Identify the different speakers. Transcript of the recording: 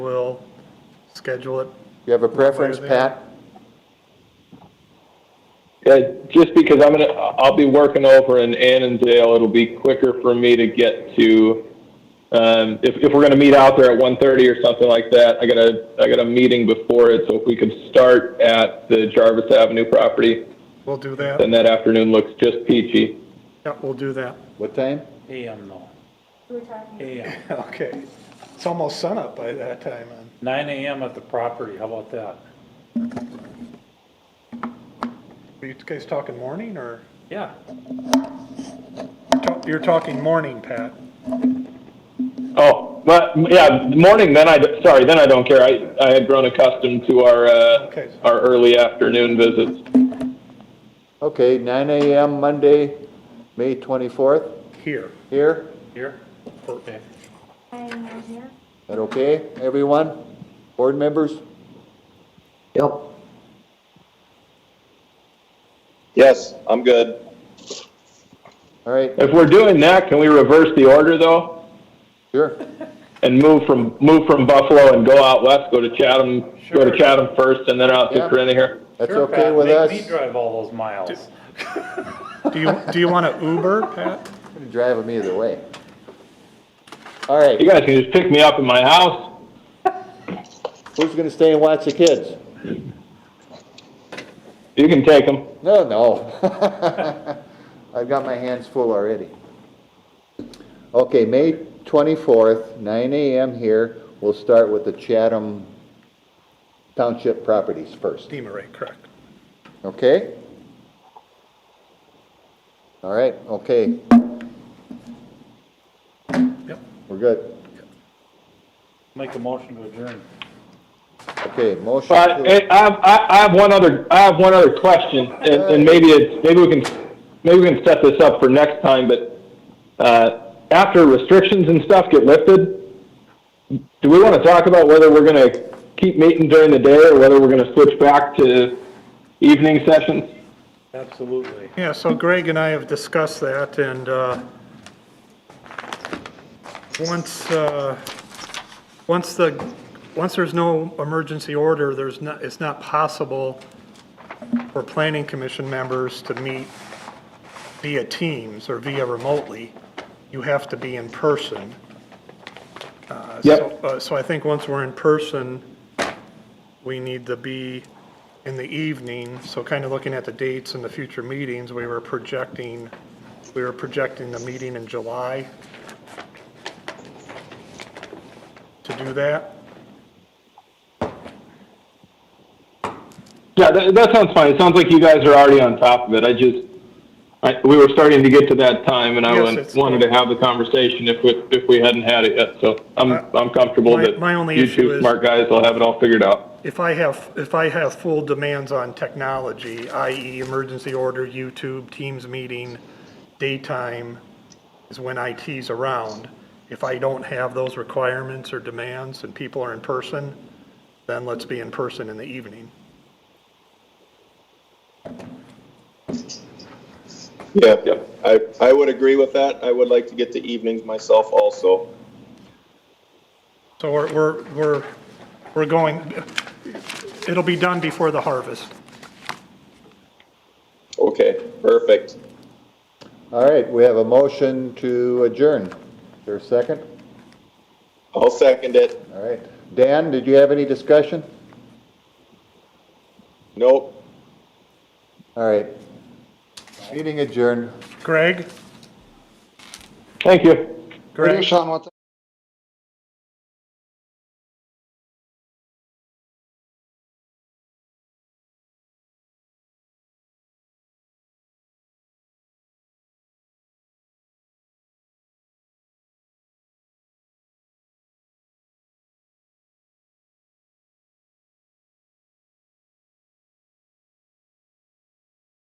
Speaker 1: We'll schedule it.
Speaker 2: You have a preference, Pat?
Speaker 3: Yeah, Uh, just because I'm gonna, I'll be working over in Annandale, it'll be quicker for me to get to, um, if, if we're gonna meet out there at one thirty or something like that, I got a, I got a meeting before it, so if we could start at the Jarvis Avenue property,
Speaker 1: We'll do that.
Speaker 3: then that afternoon looks just peachy.
Speaker 1: Yeah, we'll do that.
Speaker 2: What time?
Speaker 4: AM though,
Speaker 5: We're talking,
Speaker 4: AM,
Speaker 1: Okay. It's almost sunup by that time. and
Speaker 4: nine AM at the property, how about that?
Speaker 1: Are you guys talking morning or?
Speaker 4: Yeah,
Speaker 1: You're talking morning, Pat.
Speaker 3: Oh, but, yeah, morning, then I, sorry, then I don't care, I, I had grown accustomed to our,
Speaker 1: Okay.
Speaker 3: uh, our early afternoon visits.
Speaker 2: Okay, nine AM Monday, May twenty-fourth,
Speaker 1: Here.
Speaker 2: here.
Speaker 4: here, eh, okay,
Speaker 5: and I'm here.
Speaker 2: That okay, everyone? Board members? Yep.
Speaker 3: Yes, I'm good.
Speaker 2: All right,
Speaker 3: If we're doing that, can we reverse the order though?
Speaker 2: sure.
Speaker 3: and move from move from Buffalo and go out west, go to Chatham, go to
Speaker 4: Sure.
Speaker 3: Chatham first, and then out to
Speaker 2: Yeah.
Speaker 3: Corina here.
Speaker 2: That's
Speaker 4: Sure,
Speaker 2: okay
Speaker 4: Pat,
Speaker 2: with
Speaker 4: make me
Speaker 2: us?
Speaker 4: drive all those miles.
Speaker 1: Do you, do you want to Uber, Pat?
Speaker 2: Drive them either way. All right,
Speaker 3: You guys can just pick me up in my house.
Speaker 2: who's gonna stay and watch the kids?
Speaker 3: You can take them.
Speaker 2: No, no. I've got my hands full already. Okay, May 24th, 9 AM here. We'll start with the Chatham Township properties first,
Speaker 1: Steamer rate, correct.
Speaker 2: okay? All right, okay,
Speaker 1: Yep.
Speaker 2: we're good.
Speaker 4: Make a motion to adjourn.
Speaker 2: Okay, motion.
Speaker 3: But
Speaker 2: to-
Speaker 3: eh, I have, I I have one other I have one other question, and, and maybe it's maybe we can maybe we can set this up for next time. But uh, after restrictions and stuff get lifted, do we want to talk about whether we're going to keep meeting during the day or whether we're going to switch back to evening sessions?
Speaker 4: Absolutely.
Speaker 1: Yeah, so Greg and I have discussed that and, uh, once, uh, once the, once there's no emergency order, there's not, it's not possible for planning commission members to meet via Teams or via remotely. You have to be in person. Uh,
Speaker 3: Yep.
Speaker 1: so- uh, So I think once we're in person, we need to be in the evening. So kind of looking at the dates and the future meetings, we were projecting, we were projecting the meeting in July to do that.
Speaker 3: Yeah, that, that sounds fine. It sounds like you guys are already on top of it. I just, I, we were starting to get to that time, and I
Speaker 1: Yes,
Speaker 3: wan-
Speaker 1: it's-
Speaker 3: wanted to have the conversation if we if we hadn't had it yet. So I'm
Speaker 1: Uh,
Speaker 3: I'm comfortable
Speaker 1: my-
Speaker 3: that
Speaker 1: my only
Speaker 3: you
Speaker 1: issue
Speaker 3: two
Speaker 1: is-
Speaker 3: smart guys will have it all figured out.
Speaker 1: If I have, if I have full demands on technology, i.e. emergency order, YouTube, Teams meeting, daytime is when IT's around. If I don't have those requirements or demands and people are in person, then let's be in person in the evening.
Speaker 6: Yeah,
Speaker 3: Yep.
Speaker 6: I, I would agree with that. I would like to get to evenings myself also.
Speaker 1: So we're, we're, we're, we're going, it'll be done before the harvest.
Speaker 6: Okay, perfect.
Speaker 2: All right, we have a motion to adjourn. Is there a second?
Speaker 6: I'll second it.
Speaker 2: All right. Dan, did you have any discussion?
Speaker 6: Nope.
Speaker 2: All right. Meeting adjourned.
Speaker 1: Greg?
Speaker 3: Thank you.
Speaker 1: Greg?
Speaker 7: Sean, what